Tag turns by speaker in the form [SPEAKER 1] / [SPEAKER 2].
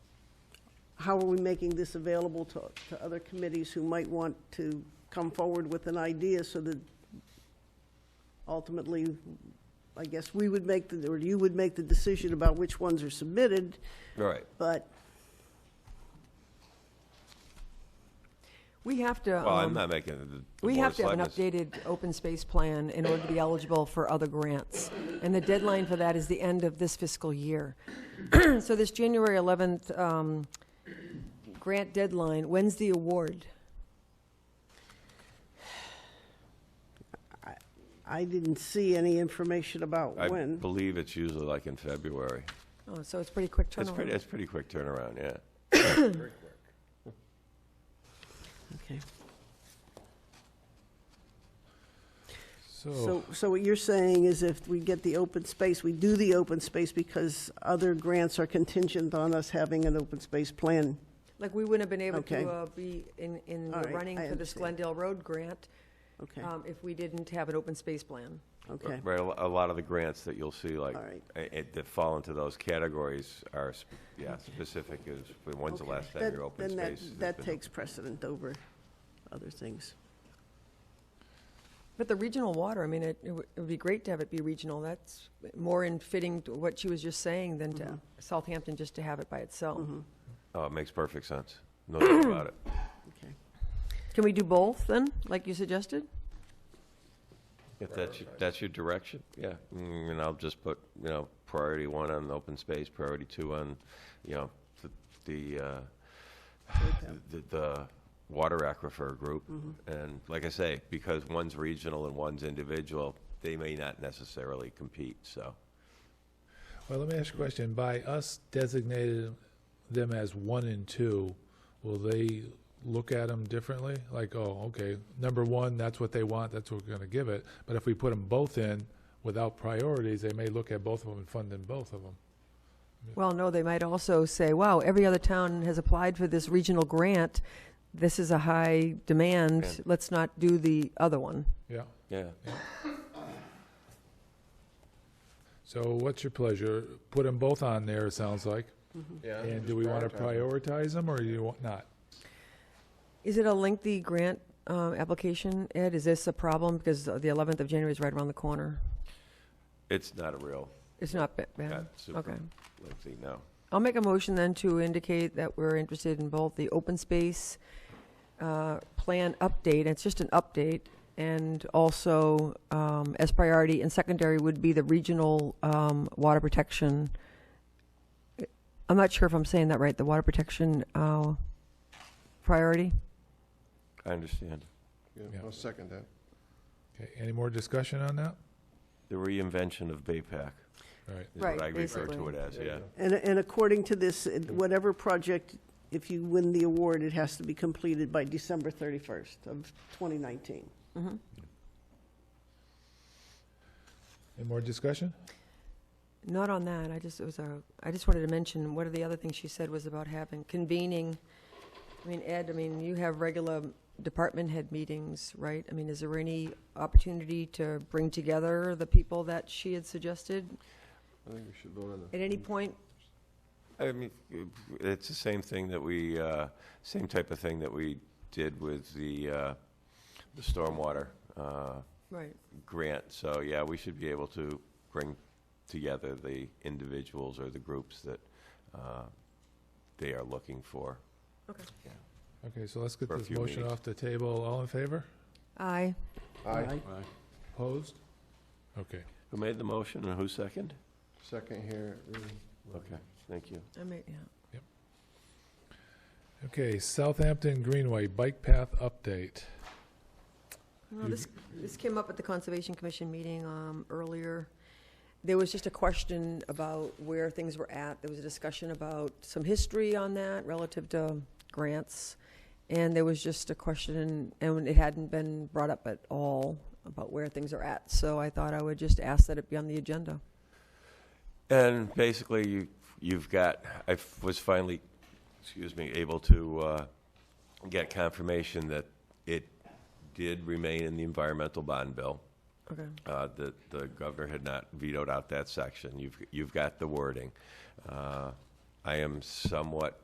[SPEAKER 1] how are we making this available to, to other committees who might want to come forward with an idea so that ultimately, I guess we would make, the or you would make the decision about which ones are submitted,
[SPEAKER 2] Right.
[SPEAKER 1] but
[SPEAKER 3] We have to,
[SPEAKER 2] Well, I'm
[SPEAKER 3] um,
[SPEAKER 2] not making the- the.
[SPEAKER 3] we
[SPEAKER 2] Board
[SPEAKER 3] have
[SPEAKER 2] of
[SPEAKER 3] to have an
[SPEAKER 2] Selectmen's-
[SPEAKER 3] updated open space plan in order to be eligible for other grants. And the deadline for that is the end of this fiscal year. So this January 11th um, grant deadline, when's the award?
[SPEAKER 1] I didn't see any information about
[SPEAKER 2] I
[SPEAKER 1] when.
[SPEAKER 2] believe it's usually like in February.
[SPEAKER 3] Oh, so it's pretty quick
[SPEAKER 2] It's pretty,
[SPEAKER 3] turnaround.
[SPEAKER 2] it's pretty quick turnaround, yeah.
[SPEAKER 1] Okay.
[SPEAKER 4] So,
[SPEAKER 1] So, so what you're saying is if we get the open space, we do the open space because other grants are contingent on us having an open space plan.
[SPEAKER 3] Like, we wouldn't have been able
[SPEAKER 1] Okay.
[SPEAKER 3] to uh, be in, in
[SPEAKER 1] All
[SPEAKER 3] the
[SPEAKER 1] right,
[SPEAKER 3] running
[SPEAKER 1] I
[SPEAKER 3] for this
[SPEAKER 1] understand.
[SPEAKER 3] Glendale Road grant
[SPEAKER 1] Okay,
[SPEAKER 3] um, if we didn't have an open space plan.
[SPEAKER 1] okay.
[SPEAKER 2] Right, a lo- a lot of the grants that you'll see, like,
[SPEAKER 1] All right.
[SPEAKER 2] i- i- that fall into those categories are, sp- yeah, specific is, when- when's the
[SPEAKER 1] Okay.
[SPEAKER 2] last time
[SPEAKER 1] That-
[SPEAKER 2] your open
[SPEAKER 1] then that-
[SPEAKER 2] space? has
[SPEAKER 1] That
[SPEAKER 2] been-
[SPEAKER 1] takes precedent over other things.
[SPEAKER 3] But the regional water, I mean, it, it would it would be great to have it be regional. That's more in fitting to what she was just saying than to Southampton just to have it by itself.
[SPEAKER 2] Oh, it makes perfect sense. No doubt about it.
[SPEAKER 1] Okay.
[SPEAKER 3] Can we do both then, like you suggested?
[SPEAKER 2] If that's, your- that's your direction, yeah. Mm, And I'll just put, you know, priority one on the open space, priority two on, you know, th- the, uh, the, the water aquifer group.
[SPEAKER 3] Mm-hmm.
[SPEAKER 2] And like I say, because one's regional and one's individual, they may not necessarily compete, so.
[SPEAKER 4] well, let me ask you a question. By us designating them as one and two, will they look at them differently? Like, oh, okay, number one, that's what they want, that's what we're gonna give it. But if we put them both in without priorities, they may look at both of them and fund in both of them.
[SPEAKER 3] Well, no, they might also say, wow, every other town has applied for this regional grant. This is a high
[SPEAKER 2] Yeah.
[SPEAKER 3] demand. Let's not do the other one.
[SPEAKER 4] Yeah.
[SPEAKER 2] Yeah.
[SPEAKER 4] So what's your pleasure? Put them both on there, it sounds like.
[SPEAKER 5] Yeah.
[SPEAKER 4] And
[SPEAKER 5] just
[SPEAKER 4] do we want to
[SPEAKER 5] them.
[SPEAKER 4] prioritize them or do you want not?
[SPEAKER 3] Is it a lengthy grant um, application, Ed? Is this a problem? Because the 11th of January is right around the corner.
[SPEAKER 2] It's not a real,
[SPEAKER 3] It's not ba- bad.
[SPEAKER 2] not super
[SPEAKER 3] Okay.
[SPEAKER 2] lengthy, no.
[SPEAKER 3] I'll make a motion then to indicate that we're interested in both the open space uh, plan update, it's just an update, and also um, as priority, and secondary would be the regional um, water protection. I'm not sure if I'm saying that right, the water protection uh, priority?
[SPEAKER 2] I understand.
[SPEAKER 5] Yeah,
[SPEAKER 4] Yeah.
[SPEAKER 5] I'll second that.
[SPEAKER 4] Okay, any more discussion on that?
[SPEAKER 2] The reinvention of BayPAC
[SPEAKER 4] All right,
[SPEAKER 2] is what
[SPEAKER 3] Right,
[SPEAKER 2] I refer to
[SPEAKER 3] basically.
[SPEAKER 2] it as,
[SPEAKER 5] There you
[SPEAKER 2] yeah.
[SPEAKER 5] go.
[SPEAKER 1] And, and according to this, uh, whatever project, if you win the award, it has to be completed by December 31st of 2019.
[SPEAKER 4] any more discussion?
[SPEAKER 3] Not on that, I just, it was a, I just wanted to mention, one of the other things she said was about having, convening, I mean, Ed, I mean, you have regular department head meetings, right? I mean, is there any opportunity to bring together the people that she had suggested
[SPEAKER 5] I think we should vote on that.
[SPEAKER 3] at any point?
[SPEAKER 2] I mean, it's the same thing that we, uh, same type of thing that we did with the, uh, the stormwater uh,
[SPEAKER 3] Right.
[SPEAKER 2] grant. So, yeah, we should be able to bring together the individuals or the groups that uh, they are looking for.
[SPEAKER 4] Okay, so let's get
[SPEAKER 2] For a
[SPEAKER 4] this
[SPEAKER 2] few
[SPEAKER 4] motion
[SPEAKER 2] meetings.
[SPEAKER 4] off the table. All in favor?
[SPEAKER 3] Aye.
[SPEAKER 5] Aye,
[SPEAKER 4] Opposed? Okay.
[SPEAKER 2] Who made the motion and who seconded?
[SPEAKER 5] second here, really.
[SPEAKER 2] Okay, thank you.
[SPEAKER 3] I mean, yeah.
[SPEAKER 4] Okay, Southampton Greenway Bike Path Update.
[SPEAKER 3] Well, this, this came up at the Conservation Commission meeting um, earlier. There was just a question about where things were at. There was a discussion about some history on that relative to grants. And there was just a question, and it hadn't been brought up at all, about where things are at. So I thought I would just ask that it be on the agenda.
[SPEAKER 2] And basically, you, you've got, I f- was finally, excuse me, able to uh, get confirmation that it did remain in the environmental bond bill,
[SPEAKER 3] Okay.
[SPEAKER 2] uh, that the governor had not vetoed out that section. You've, you've got the wording. Uh, I am somewhat